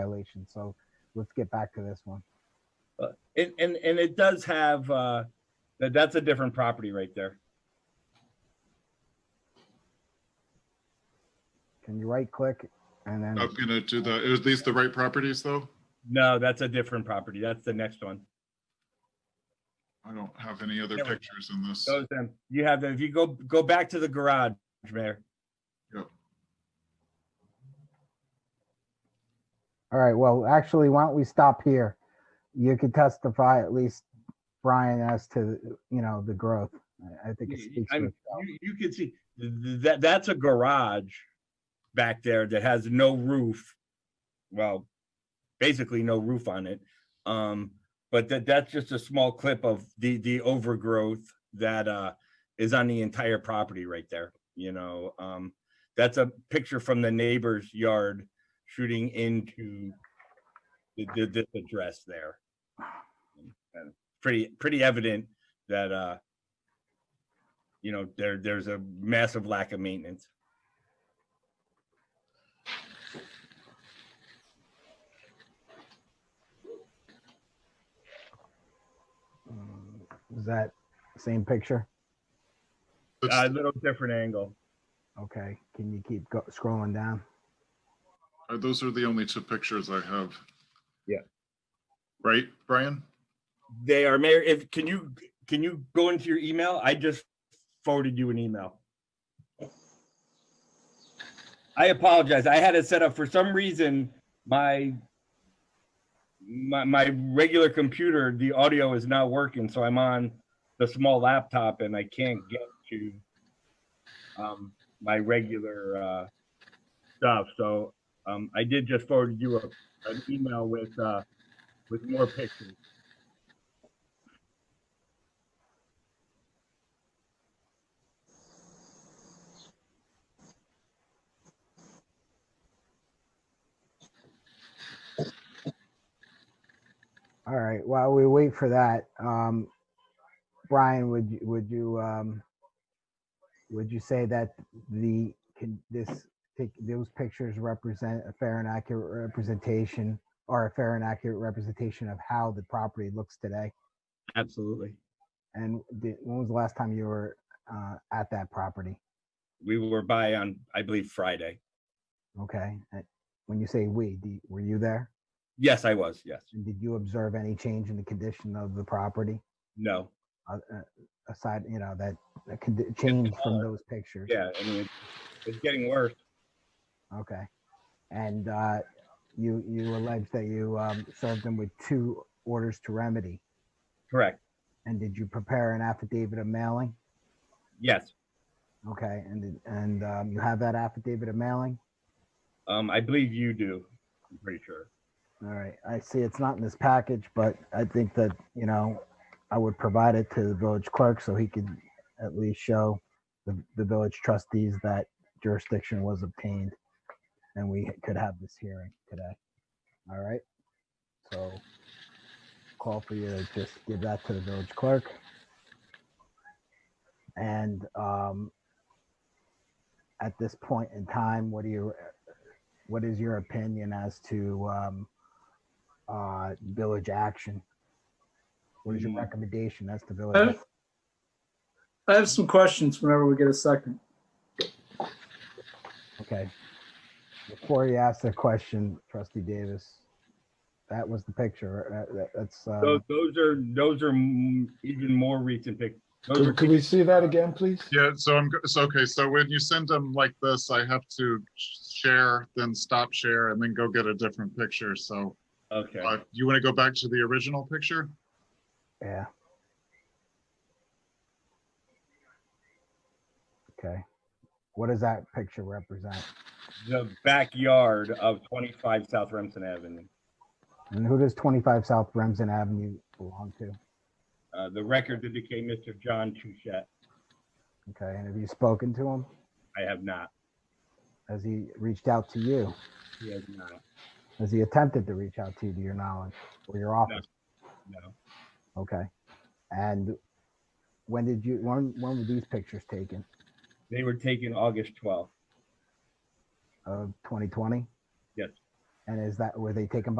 violation. So let's get back to this one. And, and, and it does have, uh, that, that's a different property right there. Can you right click and then I'm gonna do the, is these the right properties though? No, that's a different property. That's the next one. I don't have any other There we go. pictures in this. Those, um, you have, the- if you go, go back to the garage, Mayor. all right, well, actually, why don't we stop here? You could testify at least, Brian, as to you know the growth. I- I think it Yeah, speaks I'm- for itself. You, you can see, th- th- that, that's a garage back there that has no roof. Well, basically no roof on it. Um, but that, that's just a small clip of the, the overgrowth that, uh, is on the entire property right there, you know, um, that's a picture from the neighbor's yard shooting into the, the, this address there. And Pretty, pretty evident that, uh, you know, there, there's a massive lack of maintenance. Mm, Is that same picture? It's- A little different angle. Okay. Can you keep go- scrolling down? uh, Those are the only two pictures I have. Yeah. Right, Brian? They are, Mayor, if, can you, can you go into your email? I just forwarded you an email. I apologize. I had it set up for some reason, my my, my regular computer, the audio is not working, so I'm on the small laptop and I can't get to um, my regular uh, stuff. So um, I did just forward you a, an email with uh, with more pictures. All right. While we wait for that, um, Brian, would you, would you, um, would you say that the, can this, pic- those pictures represent a fair and accurate representation or a fair and accurate representation of how the property looks today? Absolutely. And did, when was the last time you were, uh, at that property? We were by on, I believe, Friday. Okay. And When you say we, do- were you there? Yes, I was. Yes. And did you observe any change in the condition of the property? No. uh, uh, aside, you know, that, that could d- change from those pictures. Yeah. I mean, it's, it's getting worse. Okay. And, uh, you, you allege that you, um, served them with two orders to remedy. Correct. And did you prepare an affidavit of mailing? Yes. Okay, and, did- and, um, you have that affidavit of mailing? Um, I believe you do. I'm pretty sure. All right, I see it's not in this package, but I think that, you know, I would provide it to the village clerk so he could at least show the, the village trustees that jurisdiction was obtained and we could have this hearing today. All right, so call for you to just give that to the village clerk. And um, at this point in time, what do you, what is your opinion as to um, uh, village action? What is your Mm. recommendation as to village? I I have some questions whenever we get a second. Okay. Before you ask the question, trustee Davis, that was the picture. uh, that- That's, uh, Those, those are, those are m- even more recent pic. Those are Could could we see that again, please? Yeah, so I'm, go- so, okay, so when you send them like this, I have to share, then stop share, and then go get a different picture, so. Okay. uh, You wanna go back to the original picture? yeah. Okay. What does that picture represent? The backyard of 25 South Remsen Avenue. And who does 25 South Remsen Avenue belong to? Uh, the record that became Mr. John Touchette. Okay, and have you spoken to him? I have not. Has he reached out to you? He has not. Has he attempted to reach out to you, to your knowledge, or your office? No. Okay. And when did you, when, when were these pictures taken? They were taken August 12th. Of 2020? Yes. And is that where they take them